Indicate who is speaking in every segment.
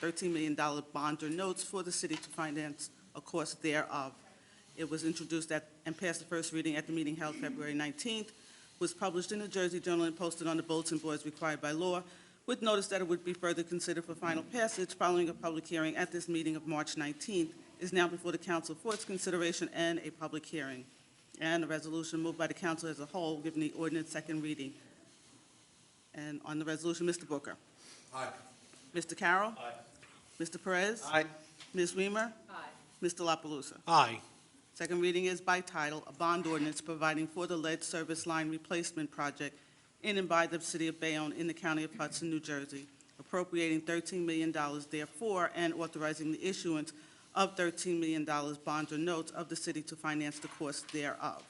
Speaker 1: $13 million bond or notes for the city to finance a cost thereof. It was introduced at, and passed the first reading at the meeting held February 19th, was published in the Jersey Journal and posted on the bulletin boards required by law, with notice that it would be further considered for final passage following a public hearing at this meeting of March 19th, is now before the council for its consideration and a public hearing. And a resolution moved by the council as a whole, given the ordinance second reading. And on the resolution, Mr. Booker.
Speaker 2: Aye.
Speaker 1: Mr. Carroll. Aye. Mr. Perez.
Speaker 2: Aye.
Speaker 1: Ms. Weimer.
Speaker 3: Aye.
Speaker 1: Mr. La Palusa.
Speaker 2: Aye.
Speaker 1: Second reading is by title, a bond ordinance providing for the lead service line replacement project in and by the city of Bayonne in the county of Hudson, New Jersey, appropriating $13 million therefore and authorizing the issuance of $13 million bonds or notes of the city to finance the cost thereof.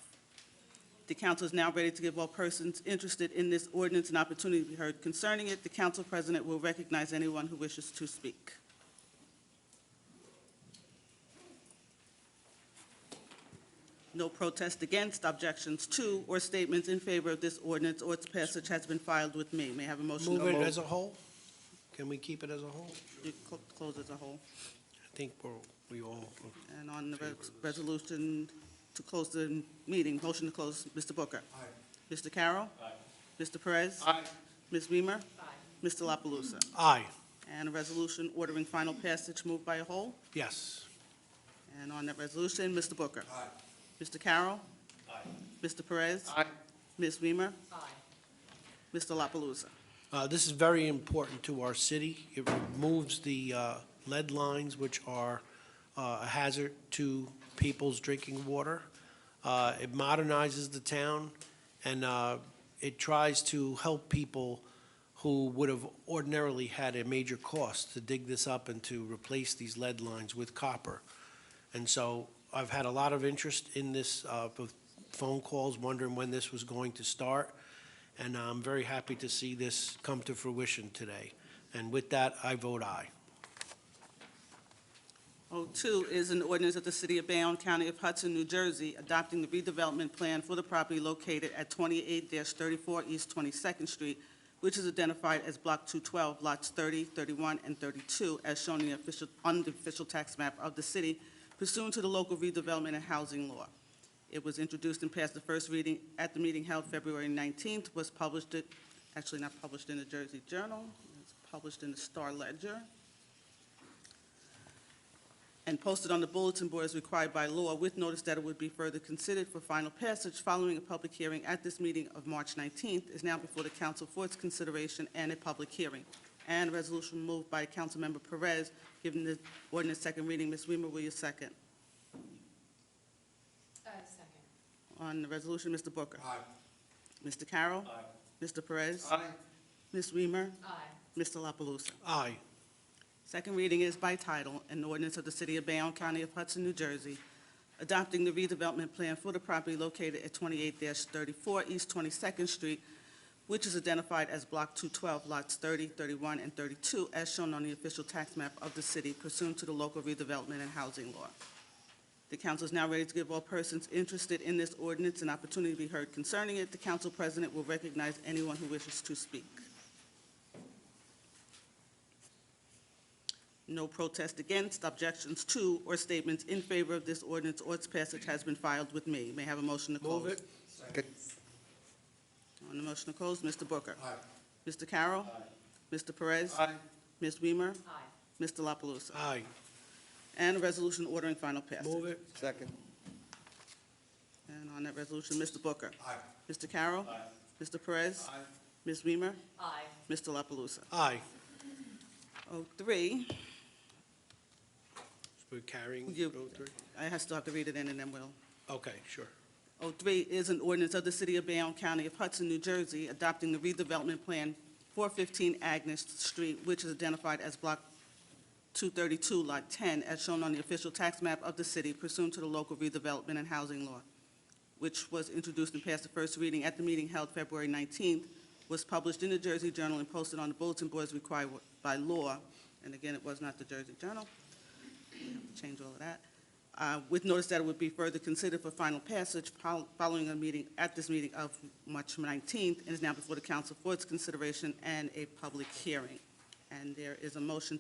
Speaker 1: The council is now ready to give all persons interested in this ordinance an opportunity to be heard concerning it. The council president will recognize anyone who wishes to speak. No protest against, objections to, or statements in favor of this ordinance or its passage has been filed with me. May I have a motion? to
Speaker 2: Move it as a whole? Can we keep it as a whole?
Speaker 1: You cl- Close as a whole.
Speaker 2: I think we're, we all,
Speaker 1: And on the res- resolution to close the meeting, motion to close, Mr. Booker. Aye. Mr. Carroll. Aye. Mr. Perez. Aye. Ms. Weimer. Aye. Mr. La Palusa.
Speaker 2: aye,
Speaker 1: And a resolution ordering final passage moved by a whole.
Speaker 2: yes.
Speaker 1: And on that resolution, Mr. Booker. Aye. Mr. Carroll. Aye. Mr. Perez. Aye. Ms. Weimer.
Speaker 3: Aye.
Speaker 1: Mr. La Palusa.
Speaker 2: Uh, This is very important to our city. It removes the uh, lead lines, which are uh, a hazard to people's drinking water. Uh, It modernizes the town, and uh, it tries to help people who would have ordinarily had a major cost to dig this up and to replace these lead lines with copper. And so I've had a lot of interest in this, uh, of phone calls wondering when this was going to start, and I'm very happy to see this come to fruition today. And with that, I vote aye.
Speaker 1: O2 is an ordinance of the City of Bayonne, County of Hudson, New Jersey, adopting the redevelopment plan for the property located at 28-34 East 22nd Street, which is identified as Block 212, Lots 30, 31, and 32, as shown in the official, on the official tax map of the city pursuant to the local redevelopment and housing law. It was introduced and passed the first reading at the meeting held February 19th, was published, it- actually not published in the Jersey Journal, it's published in the Star Ledger, and posted on the bulletin board as required by law with notice that it would be further considered for final passage following a public hearing at this meeting of March 19th, is now before the council for its consideration and a public hearing. And a resolution moved by Councilmember Perez, given the ordinance second reading. Ms. Weimer, will you second?
Speaker 3: Uh, second.
Speaker 1: On the resolution, Mr. Booker.
Speaker 2: Aye.
Speaker 1: Mr. Carroll. Aye. Mr. Perez. Aye. Ms. Weimer.
Speaker 3: Aye.
Speaker 1: Mr. La Palusa.
Speaker 2: Aye,
Speaker 1: Second reading is by title, an ordinance of the City of Bayonne, County of Hudson, New Jersey, adopting the redevelopment plan for the property located at 28-34 East 22nd Street, which is identified as Block 212, Lots 30, 31, and 32, as shown on the official tax map of the city pursuant to the local redevelopment and housing law. The council is now ready to give all persons interested in this ordinance an opportunity to be heard concerning it. The council president will recognize anyone who wishes to speak. No protest against, objections to, or statements in favor of this ordinance or its passage has been filed with me. May I have a motion to close?
Speaker 2: move it.
Speaker 1: On the motion to close, Mr. Booker. Aye. Mr. Carroll. Aye. Mr. Perez. Ms. Weimer.
Speaker 3: Aye.
Speaker 1: Mr. La Palusa.
Speaker 2: Aye,
Speaker 1: And a resolution ordering final passage.
Speaker 2: move it.
Speaker 4: Second.
Speaker 1: And on that resolution, Mr. Booker.
Speaker 2: Aye.
Speaker 1: Mr. Carroll. Aye. Mr. Perez. Aye. Ms. Weimer.
Speaker 3: Aye.
Speaker 1: Mr. La Palusa.
Speaker 2: Aye.
Speaker 1: Oh, three,
Speaker 2: We're carrying
Speaker 1: You-
Speaker 2: 03?
Speaker 1: I have- still have to read it in and then we'll.
Speaker 2: Okay, sure.
Speaker 1: 03 is an ordinance of the City of Bayonne, County of Hudson, New Jersey, adopting the redevelopment plan 415 Agnes Street, which is identified as Block 232, Lot 10, as shown on the official tax map of the city pursuant to the local redevelopment and housing law, which was introduced and passed the first reading at the meeting held February 19th, was published in the Jersey Journal and posted on the bulletin boards required by law, and again, it was not the Jersey Journal. We have to Change all of that uh, with notice that it would be further considered for final passage pol- following a meeting, at this meeting of March 19th, and is now before the council for its consideration and a public hearing. And there is a motion